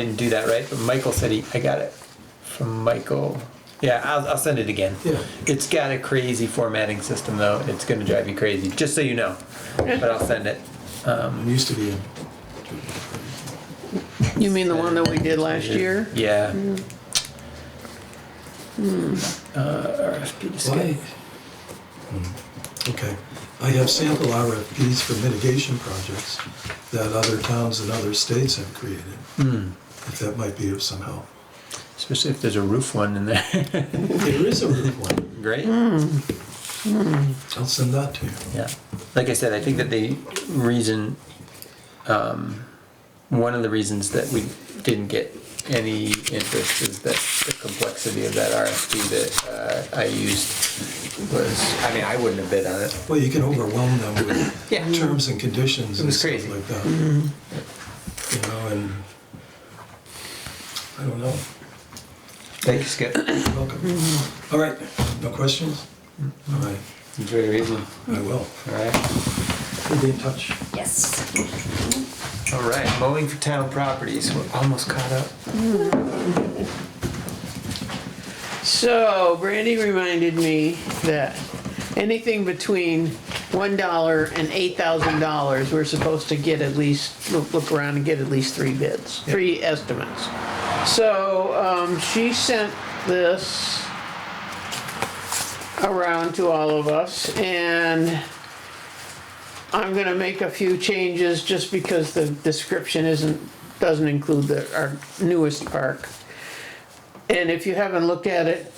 Didn't do that right, but Michael said he, I got it from Michael. Yeah, I'll, I'll send it again. Yeah. It's got a crazy formatting system though. It's gonna drive you crazy, just so you know. But I'll send it. It used to uh, be, a- You mean the one that we did last year? Yeah. Uh, RFP Why? discussion. Hmm. Okay, I have sample RFPs for mitigation projects that other towns and other states have created. If that might be of some help. Especially if there's a roof one in there. There is a roof one, Great. I'll send that to you. Yeah. Like I said, I think that the reason, um, one of the reasons that we didn't get any interest is that the complexity of that RFP that uh, I used was, I mean, I wouldn't have bid on it. Well, you can overwhelm them with Yeah. terms and conditions It and was stuff crazy. like that. You know, and, I don't know, Thank you, Skip. It's You're welcome. All right, no questions? All right, very easy. I will, All right. we'll be in touch. Yes. All right, mowing for town properties. We're almost caught up. So Brandy reminded me that anything between one dollar and eight thousand dollars, we're supposed to get at least, look, look around and get at least three bids, three estimates. So, um, she sent this around to all of us and I'm gonna make a few changes just because the description isn't, doesn't include the, our newest park. And if you haven't looked at it,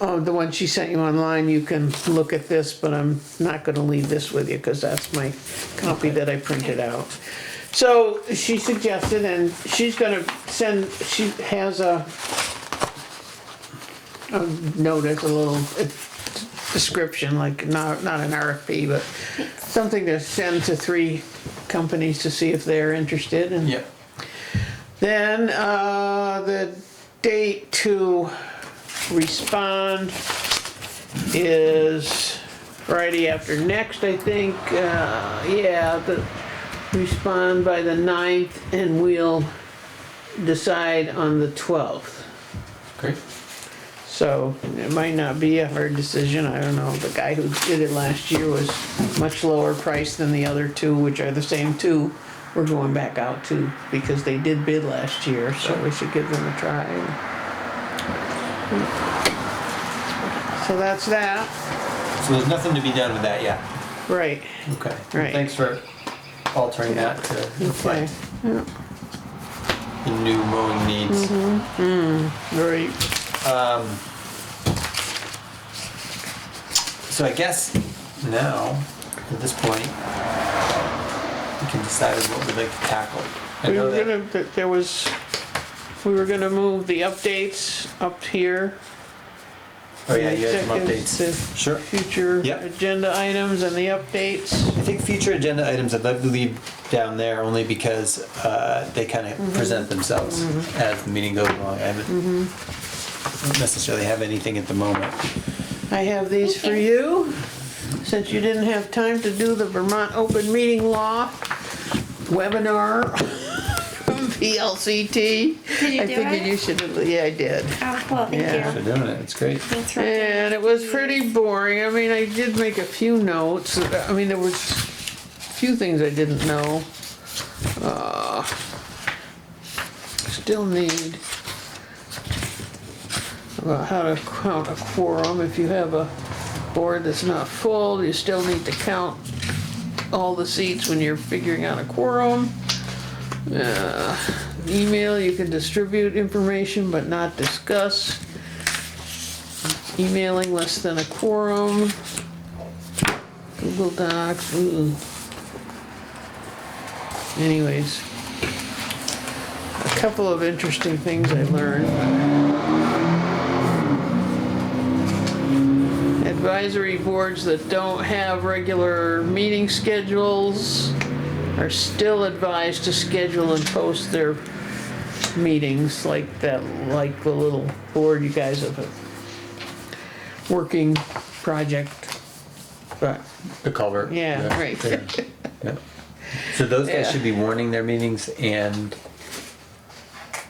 oh, the one she sent you online, you can look at this, but I'm not gonna leave this with you, cause that's my copy that I printed out. So she suggested, and she's gonna send, she has a a notice, a little uh, description, like not, not an RFP, but something to send to three companies to see if they're interested and. Yep. Then, uh, the date to respond is Friday after next, I think, uh, yeah, the, respond by the ninth and we'll decide on the twelfth. Great. So it might not be a hard decision, I don't know, the guy who did it last year was much lower priced than the other two, which are the same two. We're going back out to, because they did bid last year, so we should give them a try. So that's that, So there's nothing to be done with that yet. right, Okay. Right. Thanks for altering that to okay, reflect the new mowing needs. right, So I guess now, at this point, we can decide what we'd like to tackle. I we know were that- gonna, that there was, we were gonna move the updates up here. oh yeah, you had some Executives updates. to Sure. Future Yep. agenda items and the updates. I think future agenda items I'd love to leave down there only because uh, they kind Mm-hmm. of present themselves as the meeting goes along. I haven't Mm-hmm. don't necessarily have anything at the moment. I have these for you, since you didn't have time to do the Vermont Open Meeting Law webinar from VLCT. Did you I do figured it? you should, have- yeah, I did. Oh, well, thank Yeah. For you. doing it, it's great. Thanks, Roger. And it was pretty boring, I mean, I did make a few notes, I mean, there was a few things I didn't know. Uh, Still need about how to count a quorum, if you have a board that's not full, you still need to count all the seats when you're figuring out a quorum. Uh, Email, you can distribute information but not discuss emailing less than a quorum. Google Docs, ooh. Anyways. A couple of interesting things I learned. Advisory boards that don't have regular meeting schedules are still advised to schedule and post their meetings like that, like the little board you guys have working project, but, The culvert. yeah, right. So those guys Yeah. should be warning their meetings and